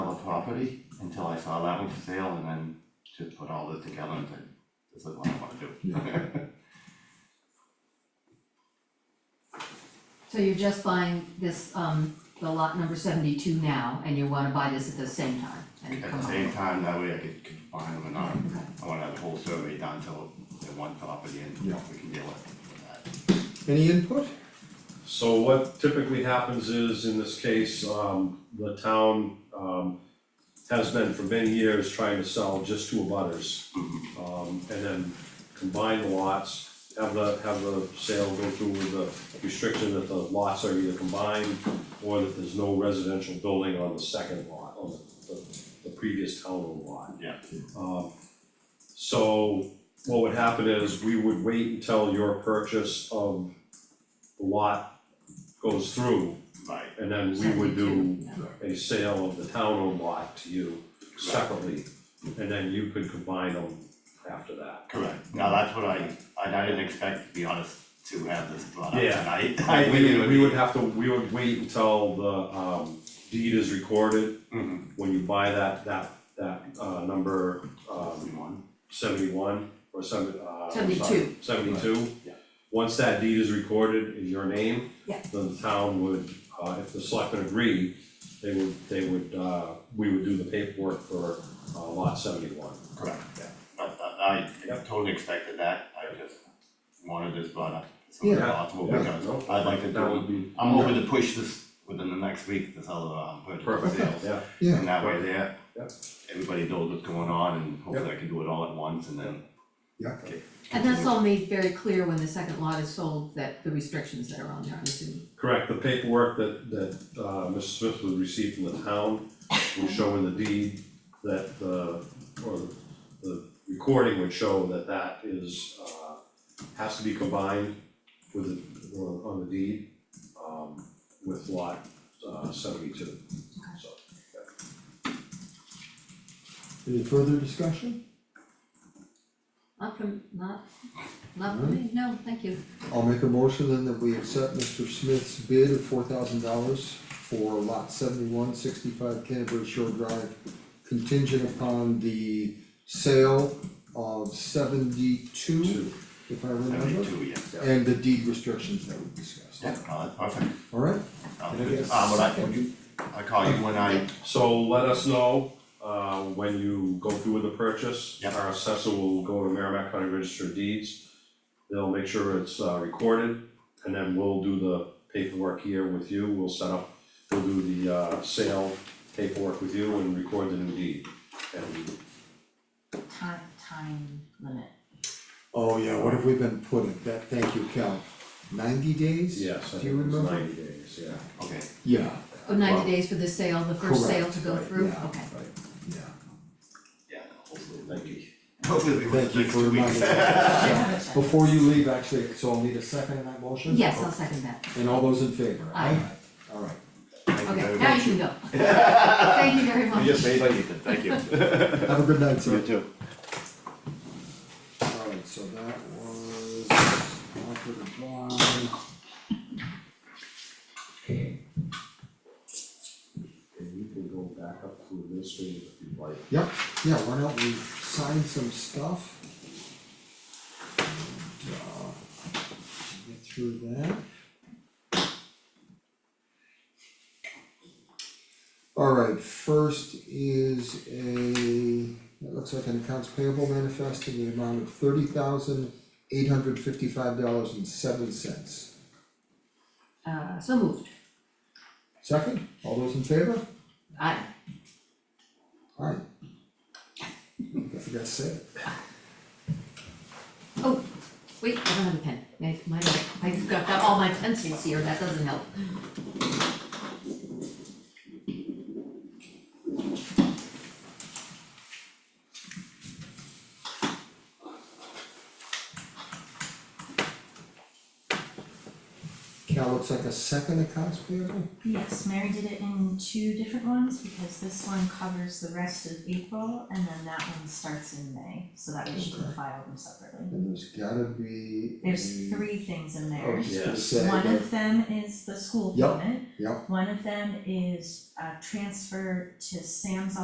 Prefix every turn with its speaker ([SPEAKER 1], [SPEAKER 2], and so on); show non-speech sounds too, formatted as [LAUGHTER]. [SPEAKER 1] property until I saw that one for sale and then just put all this together and said, this is what I wanna do.
[SPEAKER 2] So you're just buying this, um, the lot number seventy-two now, and you wanna buy this at the same time? and
[SPEAKER 1] At
[SPEAKER 2] come
[SPEAKER 1] the
[SPEAKER 2] on.
[SPEAKER 1] same time, that way I could combine them and not,
[SPEAKER 2] Okay.
[SPEAKER 1] I wanna have the whole survey done till the one property and
[SPEAKER 3] Yeah.
[SPEAKER 1] we can deal with that.
[SPEAKER 3] Any input?
[SPEAKER 4] So what typically happens is, in this case, um, the town, um, has been for many years trying to sell just two abutters. Um, and then combine the lots, have the, have the sale go through with the restriction that the lots are either combined or that there's no residential building on the second lot, on the, the, the previous town lot.
[SPEAKER 1] Yeah.
[SPEAKER 4] Um, so what would happen is, we would wait until your purchase of the lot goes through,
[SPEAKER 1] Right,
[SPEAKER 4] and then we would do
[SPEAKER 2] 72, yeah.
[SPEAKER 4] a sale of the town owned lot to you separately, and then you could combine them after that.
[SPEAKER 1] correct, now that's what I, I didn't expect, to be honest, to have this brought up
[SPEAKER 4] Yeah.
[SPEAKER 1] tonight. [LAUGHS] I think
[SPEAKER 4] We
[SPEAKER 1] it
[SPEAKER 4] would, we would have to, we would wait until the um deed is recorded,
[SPEAKER 1] Mhm.
[SPEAKER 4] when you buy that, that, that uh number um
[SPEAKER 1] One.
[SPEAKER 4] seventy-one or seven, uh, I'm sorry,
[SPEAKER 2] 72.
[SPEAKER 4] Seventy-two.
[SPEAKER 1] Yeah.
[SPEAKER 4] Once that deed is recorded in your name.
[SPEAKER 2] Yeah.
[SPEAKER 4] Then the town would, uh, if the selectmen agree, they would, they would, uh, we would do the paperwork for uh lot seventy-one.
[SPEAKER 1] Correct,
[SPEAKER 4] Yeah.
[SPEAKER 1] But uh, I
[SPEAKER 4] Yep.
[SPEAKER 1] totally expected that, I just wanted this brought up, so
[SPEAKER 3] Yeah.
[SPEAKER 1] it's possible, because
[SPEAKER 4] No,
[SPEAKER 1] I'd like to
[SPEAKER 4] That
[SPEAKER 1] do,
[SPEAKER 4] would be.
[SPEAKER 1] I'm hoping to push this within the next week, this other, um, purchase and sales.
[SPEAKER 4] Yeah,
[SPEAKER 3] Yeah,
[SPEAKER 1] And that way there,
[SPEAKER 4] Yeah.
[SPEAKER 1] everybody knows what's going on, and hopefully I can do it all at once, and then.
[SPEAKER 3] yeah,
[SPEAKER 2] And that's all made very clear when the second lot is sold, that the restrictions that are on there, I'm assuming.
[SPEAKER 4] correct, the paperwork that, that, uh, Mr. Smith would receive from the town will show in the deed that, the or the- the recording would show that that is, uh, has to be combined with, the- on on the deed, um, with lot, uh, seventy-two, so.
[SPEAKER 3] any further discussion?
[SPEAKER 2] Not from, not, not for me, no, thank you.
[SPEAKER 3] I'll make a motion then that we accept Mr. Smith's bid of four thousand dollars for lot seventy-one sixty-five Canterbury Shore Drive contingent upon the sale of seventy-two,
[SPEAKER 4] Two.
[SPEAKER 3] if I remember,
[SPEAKER 1] Seventy-two, yeah.
[SPEAKER 3] and the deed restrictions that we discussed.
[SPEAKER 1] Yeah, no, that's perfect,
[SPEAKER 3] Alright,
[SPEAKER 1] sounds
[SPEAKER 3] Can I
[SPEAKER 1] good,
[SPEAKER 3] get a
[SPEAKER 1] uh, but I,
[SPEAKER 3] second?
[SPEAKER 1] would you, I call you when I,
[SPEAKER 4] So let us know, uh, when you go through with the purchase.
[SPEAKER 1] Yep.
[SPEAKER 4] Our assessor will go to Merrimack County Register of Deeds. They'll make sure it's, uh, recorded, and then we'll do the paperwork here with you. We'll set up, we'll do the, uh, sale paperwork with you and record the new deed. And
[SPEAKER 5] time, time limit.
[SPEAKER 3] oh yeah, what have we been putting, that, thank you, Cal, ninety days?
[SPEAKER 4] yes, I
[SPEAKER 3] Do you
[SPEAKER 4] think it's
[SPEAKER 3] remember?
[SPEAKER 4] ninety days, yeah.
[SPEAKER 1] okay,
[SPEAKER 3] Yeah,
[SPEAKER 2] Oh, ninety
[SPEAKER 1] Well,
[SPEAKER 2] days for the sale, the first sale
[SPEAKER 3] correct,
[SPEAKER 2] to go
[SPEAKER 3] right,
[SPEAKER 2] through, okay.
[SPEAKER 3] yeah, right, yeah.
[SPEAKER 1] yeah, hopefully,
[SPEAKER 4] Thank you.
[SPEAKER 1] hopefully we will
[SPEAKER 3] Thank you
[SPEAKER 1] next
[SPEAKER 3] for
[SPEAKER 1] two weeks.
[SPEAKER 3] reminding us. Yeah. [LAUGHS] Before you leave, actually, so I'll need a second on that motion?
[SPEAKER 2] Yes, I'll second that,
[SPEAKER 3] And all those in favor?
[SPEAKER 2] Aye.
[SPEAKER 3] Alright,
[SPEAKER 1] Thank you
[SPEAKER 2] okay,
[SPEAKER 1] very
[SPEAKER 2] now
[SPEAKER 1] much.
[SPEAKER 2] you can go. Thank you very much.
[SPEAKER 1] made my evening, thank you.
[SPEAKER 3] have a good night, sir.
[SPEAKER 1] too.
[SPEAKER 3] Alright, so that was offered by.
[SPEAKER 4] And you can go back up to administrative if you'd like.
[SPEAKER 3] Yep, yeah, why don't we sign some stuff? And, uh, Get through that. Alright, first is a, that looks like an accounts payable manifest in the amount of thirty thousand eight hundred fifty-five dollars and seven cents.
[SPEAKER 2] Uh, so moved,
[SPEAKER 3] Second, all those in favor?
[SPEAKER 2] aye.
[SPEAKER 3] Alright. I forgot to say it.
[SPEAKER 2] Oh, wait, I don't have a pen, my, my, I've got got all my pencils here, that doesn't help.
[SPEAKER 3] Cal looks like a second accounts payable?
[SPEAKER 5] Yes, Mary did it in two different ones because this one covers the rest of April and then that one starts in May, so that way she can file them separately.
[SPEAKER 3] And there's gotta be.
[SPEAKER 5] There's
[SPEAKER 3] a-
[SPEAKER 5] three things in
[SPEAKER 3] I
[SPEAKER 5] there.
[SPEAKER 3] was just gonna
[SPEAKER 4] Yes.
[SPEAKER 3] say
[SPEAKER 5] One
[SPEAKER 3] that-
[SPEAKER 5] of them is the school
[SPEAKER 3] Yep,
[SPEAKER 5] payment.
[SPEAKER 3] yep.
[SPEAKER 5] One of them is a transfer to Sam's